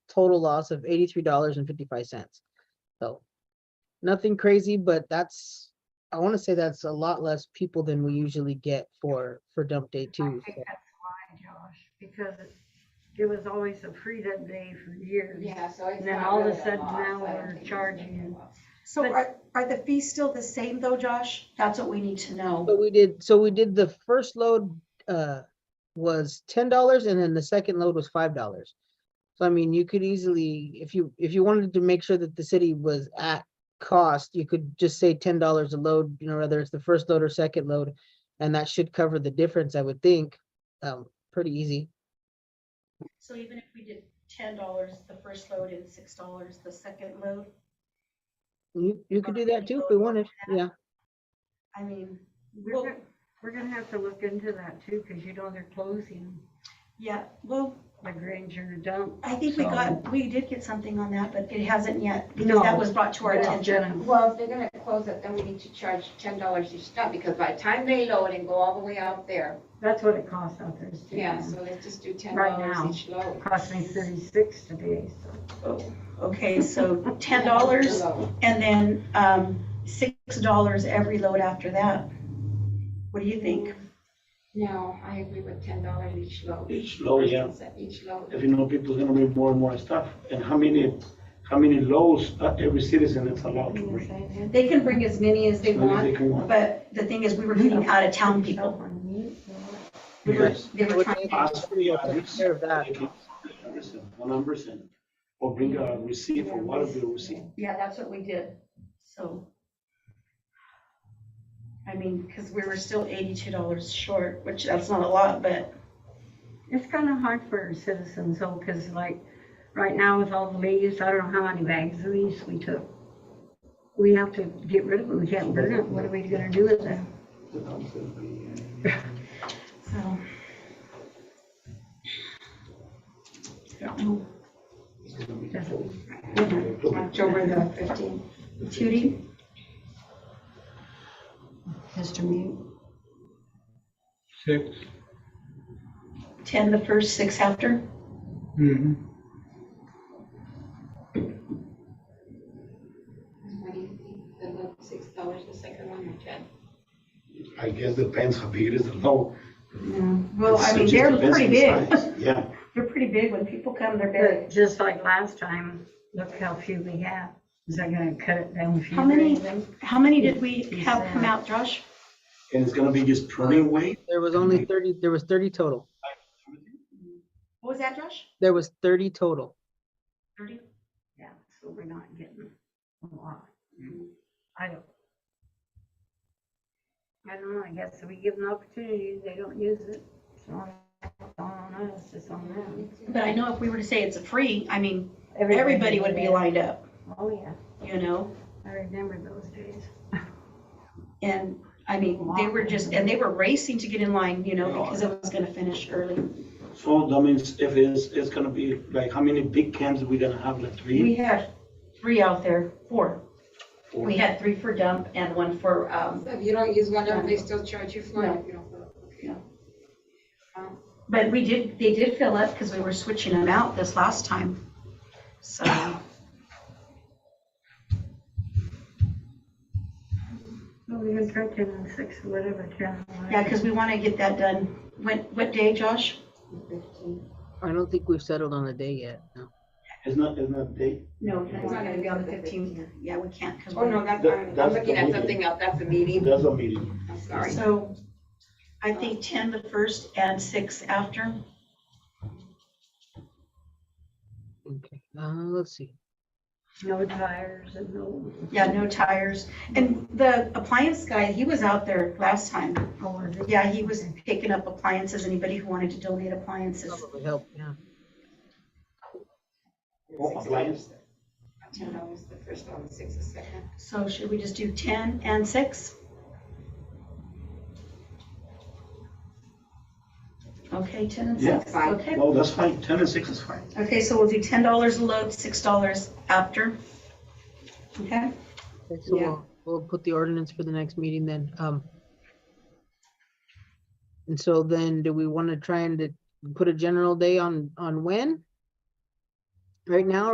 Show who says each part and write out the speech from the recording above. Speaker 1: total loss of eighty-three dollars and fifty-five cents. So nothing crazy, but that's, I want to say that's a lot less people than we usually get for, for dump day
Speaker 2: I
Speaker 1: too.
Speaker 2: think that's why, Josh, because it- it was always a freedom day for years.
Speaker 3: Yeah, so it's
Speaker 2: And then
Speaker 3: not
Speaker 2: all of a
Speaker 3: really
Speaker 2: sudden
Speaker 3: loss.
Speaker 2: now
Speaker 3: I don't
Speaker 2: we're
Speaker 3: think it's
Speaker 2: charging
Speaker 3: really a
Speaker 2: you.
Speaker 3: loss.
Speaker 4: So
Speaker 2: But-
Speaker 4: are, are the fees still the same though, Josh? That's what we need to know.
Speaker 1: But we did, so we did the first load, uh, was ten dollars and then the second load was five dollars. So I mean, you could easily, if you, if you wanted to make sure that the city was at cost, you could just say ten dollars a load, you know, whether it's the first load or second load. And that should cover the difference, I would think, um, pretty easy.
Speaker 5: So even if we did ten dollars the first load and six dollars the second load,
Speaker 1: You, you could do that too if
Speaker 5: Or
Speaker 1: we
Speaker 5: go
Speaker 1: wanted, yeah.
Speaker 4: I mean,
Speaker 2: We're
Speaker 4: Well-
Speaker 2: gonna, we're gonna have to look into that too, because you know they're closing
Speaker 4: yeah, well,
Speaker 2: the Granger dump.
Speaker 4: I think we
Speaker 2: So-
Speaker 4: got, we did get something on that, but it hasn't yet,
Speaker 2: No.
Speaker 4: because that was brought to our
Speaker 2: It's
Speaker 4: attention.
Speaker 2: been-
Speaker 3: Well, if they're gonna close it, then we need to charge ten dollars each stop, because by the time they load and go all the way out there,
Speaker 2: That's what it costs out there. too.
Speaker 3: yeah, so let's just do ten
Speaker 2: Right now.
Speaker 3: dollars each load.
Speaker 2: Cost me thirty-six today, so.
Speaker 4: Okay, so ten dollars
Speaker 3: Load.
Speaker 4: and then, um, six dollars every load after that. What do you think?
Speaker 3: No, I agree with ten dollars each load.
Speaker 6: Each load, yeah.
Speaker 3: Each load.
Speaker 6: If you know people are gonna bring more and more stuff, and how many, how many loads uh, every citizen is allowed to bring?
Speaker 4: They can bring as many as they
Speaker 6: As many as
Speaker 4: want,
Speaker 6: they can want.
Speaker 4: but the thing is, we were getting out of town people. We were,
Speaker 6: Yes.
Speaker 4: they
Speaker 1: I
Speaker 4: were
Speaker 1: would
Speaker 4: trying,
Speaker 1: think
Speaker 6: Ask for the address,
Speaker 1: Care of that.
Speaker 6: at least 100%, one hundred percent, or bring a receipt or whatever you receive.
Speaker 4: yeah, that's what we did, so. I mean, because we were still eighty-two dollars short, which that's not a lot, but
Speaker 2: It's kind of hard for our citizens though, because like, right now with all the leaves, I don't know how many bags of leaves we took. We have to get rid of them, we can't burn it, what are we gonna do with it?
Speaker 4: so. I don't know.
Speaker 3: October the fifteenth.
Speaker 4: Judy?
Speaker 3: Mr. Mute.
Speaker 7: Six.
Speaker 4: Ten the first, six after?
Speaker 7: Mm-hmm.
Speaker 3: What do you think? The load, six dollars, the second one, or ten?
Speaker 6: I guess depends how big it is, how.
Speaker 4: Well, I mean, they're pretty big.
Speaker 6: Yeah,
Speaker 4: They're pretty big. When people come, they're big.
Speaker 2: But just like last time, look how few we have. Is that gonna cut it down? if you
Speaker 4: How many-
Speaker 2: bring them?
Speaker 4: How many did we have come out, Josh?
Speaker 6: and it's gonna be just pruning weight.
Speaker 1: There was only thirty, there was thirty total.
Speaker 4: What was that, Josh?
Speaker 1: There was thirty total.
Speaker 4: Thirty?
Speaker 2: Yeah, so we're not getting a lot. I don't. I don't know, I guess if we give them opportunity, they don't use it. It's not on us, it's on them.
Speaker 4: But I know if we were to say it's a free, I mean, everybody would be lined up,
Speaker 2: Oh, yeah,
Speaker 4: you know?
Speaker 2: I remember those days.
Speaker 4: And, I mean, they were just, and they were racing to get in line, you know, because it was gonna finish early.
Speaker 6: So that means if it's, it's gonna be, like, how many big cans we gonna have, like
Speaker 4: We
Speaker 6: three?
Speaker 4: had three out there, four.
Speaker 6: Four.
Speaker 4: We had three for dump and one for, um,
Speaker 3: If you don't use one of them, they still charge you for it. if you don't fill it. Okay.
Speaker 4: But we did, they did fill up because we were switching them out this last time. So.
Speaker 2: Well, we even tried ten and six, whatever, ten. and
Speaker 4: Yeah,
Speaker 2: eleven.
Speaker 4: because we want to get that done. When, what day, Josh?
Speaker 3: Fifteen.
Speaker 1: I don't think we've settled on a day yet, no.
Speaker 6: It's not, it's not big.
Speaker 4: No,
Speaker 3: it's not gonna be on the 15th.
Speaker 4: Yeah, we can't because
Speaker 3: Oh, no,
Speaker 4: we're,
Speaker 3: that's,
Speaker 6: That-
Speaker 3: I'm I'm
Speaker 6: that's
Speaker 3: looking at
Speaker 6: the
Speaker 3: something
Speaker 6: meeting.
Speaker 3: else, that's a meeting,
Speaker 6: That's a meeting.
Speaker 3: I'm sorry.
Speaker 4: so I think 10 the first and 6 after.
Speaker 1: Okay, uh, let's see.
Speaker 2: No tires and no,
Speaker 4: Yeah, no tires. And the appliance guy, he was out there last time.
Speaker 2: oh, was it?
Speaker 4: Yeah, he was picking up appliances, anybody who wanted to donate appliances.
Speaker 1: Probably help, yeah.
Speaker 6: Oh, appliance.
Speaker 3: Ten dollars the first one, six the second.
Speaker 4: So should we just do 10 and 6? Okay, 10 and
Speaker 6: Yeah.
Speaker 4: 6,
Speaker 3: Fine.
Speaker 4: okay.
Speaker 6: No, that's fine, ten and six is fine.
Speaker 4: Okay, so we'll do ten dollars a load, six dollars after. Okay,
Speaker 1: Okay, So
Speaker 3: Yeah.
Speaker 1: we'll, we'll put the ordinance for the next meeting then, um. And so then, do we want to try and to put a general day on, on when? right now